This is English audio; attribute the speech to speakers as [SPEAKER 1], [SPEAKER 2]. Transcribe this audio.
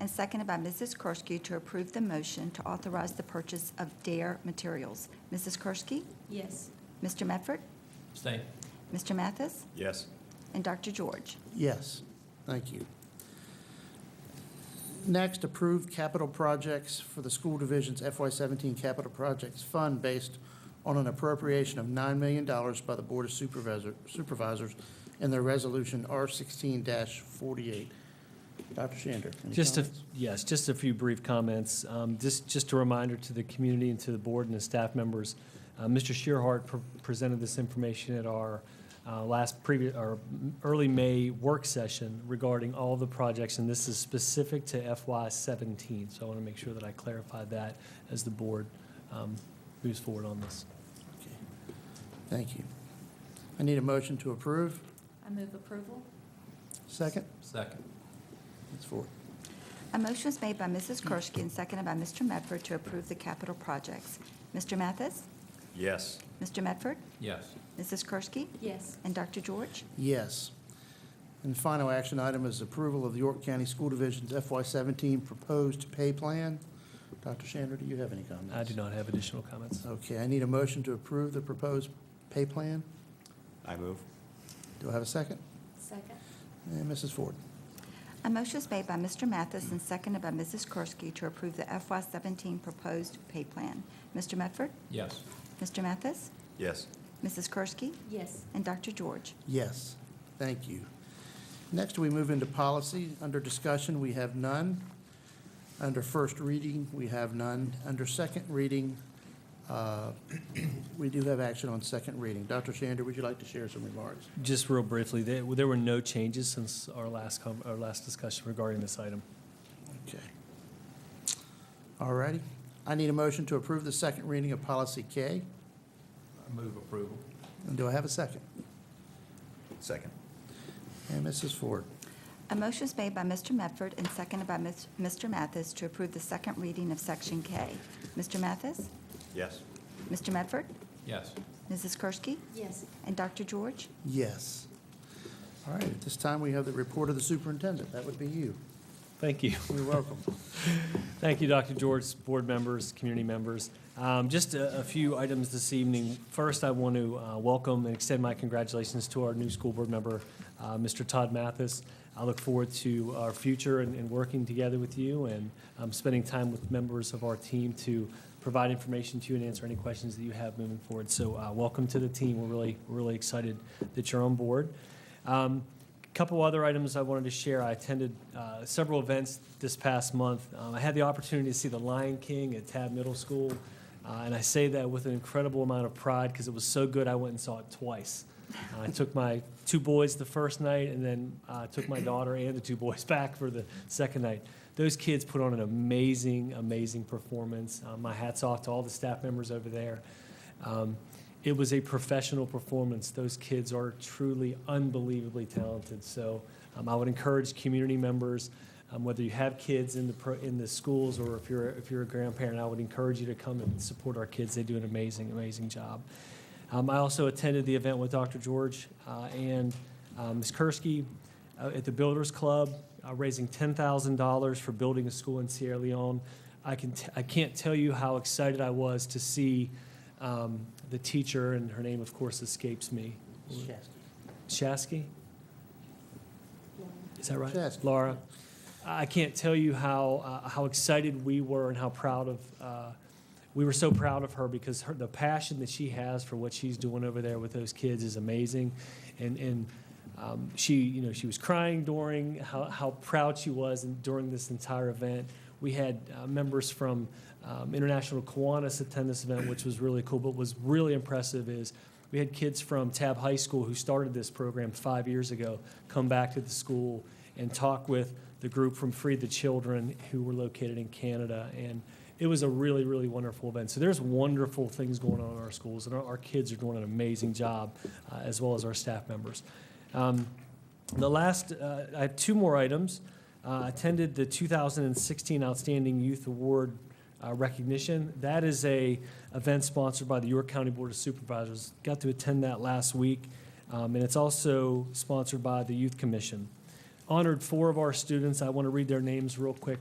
[SPEAKER 1] and seconded by Mrs. Kersky to approve the motion to authorize the purchase of DARE materials. Mrs. Kersky,
[SPEAKER 2] Yes.
[SPEAKER 1] Mr. Medford,
[SPEAKER 3] Abstain.
[SPEAKER 1] Mr. Mathis,
[SPEAKER 4] Yes.
[SPEAKER 1] and Dr. George.
[SPEAKER 5] Yes, thank you. Next, approve capital projects for the school division's FY17 capital projects fund based on an appropriation of $9 million by the Board of Supervisor- Supervisors in their resolution R16-48. Dr. Shander? any
[SPEAKER 6] Just a,
[SPEAKER 5] comments?
[SPEAKER 6] yes, just a few brief comments. Um, Just, just a reminder to the community and to the board and the staff members, uh, Mr. Shearhart pr- presented this information at our uh, last previous, or early May work session regarding all the projects, and this is specific to FY17. So I want to make sure that I clarified that as the board um, moves forward on this.
[SPEAKER 5] Okay. Thank you. I need a motion to approve.
[SPEAKER 2] I move approval?
[SPEAKER 5] Second?
[SPEAKER 3] Second.
[SPEAKER 5] Ms. Ford?
[SPEAKER 1] A motion is made by Mrs. Kersky and seconded by Mr. Medford to approve the capital projects. Mr. Mathis,
[SPEAKER 4] Yes.
[SPEAKER 1] Mr. Medford,
[SPEAKER 3] Yes.
[SPEAKER 1] Mrs. Kersky,
[SPEAKER 2] Yes.
[SPEAKER 1] and Dr. George.
[SPEAKER 5] Yes. And final action item is approval of the York County School Division's FY17 proposed pay plan. Dr. Shander, do you have any comments?
[SPEAKER 6] I do not have additional comments.
[SPEAKER 5] Okay, I need a motion to approve the proposed pay plan.
[SPEAKER 4] I move.
[SPEAKER 5] Do I have a second?
[SPEAKER 2] Second?
[SPEAKER 5] And Mrs. Ford?
[SPEAKER 1] A motion is made by Mr. Mathis and seconded by Mrs. Kersky to approve the FY17 proposed pay plan. Mr. Medford,
[SPEAKER 3] Yes.
[SPEAKER 1] Mr. Mathis,
[SPEAKER 4] Yes.
[SPEAKER 1] Mrs. Kersky,
[SPEAKER 2] Yes.
[SPEAKER 1] and Dr. George.
[SPEAKER 5] Yes, thank you. Next, we move into policy. Under discussion, we have none. Under first reading, we have none. Under second reading, uh, we do have action on second reading. Dr. Shander, would you like to share some remarks?
[SPEAKER 6] Just real briefly, there there were no changes since our last, com- our last discussion regarding this item.
[SPEAKER 5] Okay. All righty. I need a motion to approve the second reading of policy K.
[SPEAKER 3] I move approval.
[SPEAKER 5] And do I have a second?
[SPEAKER 4] Second.
[SPEAKER 5] And Mrs. Ford?
[SPEAKER 1] A motion is made by Mr. Medford and seconded by Ms- Mr. Mathis to approve the second reading of Section K. Mr. Mathis,
[SPEAKER 4] Yes.
[SPEAKER 1] Mr. Medford,
[SPEAKER 3] Yes.
[SPEAKER 1] Mrs. Kersky,
[SPEAKER 2] Yes.
[SPEAKER 1] and Dr. George.
[SPEAKER 5] Yes. All right, at this time, we have the report of the superintendent. That would be you.
[SPEAKER 6] Thank you.
[SPEAKER 5] You're welcome.
[SPEAKER 6] Thank you, Dr. George, board members, community members. Um, Just a a few items this evening. First, I want to uh, welcome and extend my congratulations to our new school board member, uh, Mr. Todd Mathis. I look forward to our future and and working together with you and um, spending time with members of our team to provide information to you and answer any questions that you have moving forward. So uh, welcome to the team. We're really, we're really excited that you're on board. Um, Couple other items I wanted to share. I attended uh, several events this past month. Um, I had the opportunity to see The Lion King at Tab Middle School, uh, and I say that with an incredible amount of pride because it was so good I went and saw it twice. Uh, I took my two boys the first night, and then uh, took my daughter and the two boys back for the second night. Those kids put on an amazing, amazing performance. Uh, my hats off to all the staff members over there. Um, it was a professional performance. Those kids are truly unbelievably talented. So um, I would encourage community members, um, whether you have kids in the pro, in the schools or if you're if you're a grandparent, I would encourage you to come and support our kids. They do an amazing, amazing job. Um, I also attended the event with Dr. George uh, and um, Ms. Kursky uh, at the Builders Club, uh, raising $10,000 for building a school in Sierra Leone. I, can t- I can't tell you how excited I was to see um, the teacher, and her name, of course, escapes me. Shasky? Is that right?
[SPEAKER 5] Shasky.
[SPEAKER 6] Laura, I I can't tell you how, uh, how excited we were and how proud of, uh, we were so proud of her because her, the passion that she has for what she's doing over there with those kids is amazing. And, and um, she, you know, she was crying during how, how proud she was and during this entire event. We had uh, members from um, International Kiwanis attend this event, which was really cool. But what was really impressive is we had kids from Tab High School who started this program five years ago come back to the school and talk with the group from Free the Children who were located in Canada. And it was a really, really wonderful event. So there's wonderful things going on in our schools, and our, our kids are doing an amazing job, uh, as well as our staff members. Um, the last, uh, I have two more items. Uh, attended the 2016 Outstanding Youth Award uh, recognition. That is a event sponsored by the York County Board of Supervisors. Got to attend that last week, um, and it's also sponsored by the Youth Commission. Honored four of our students. I want to read their names real quick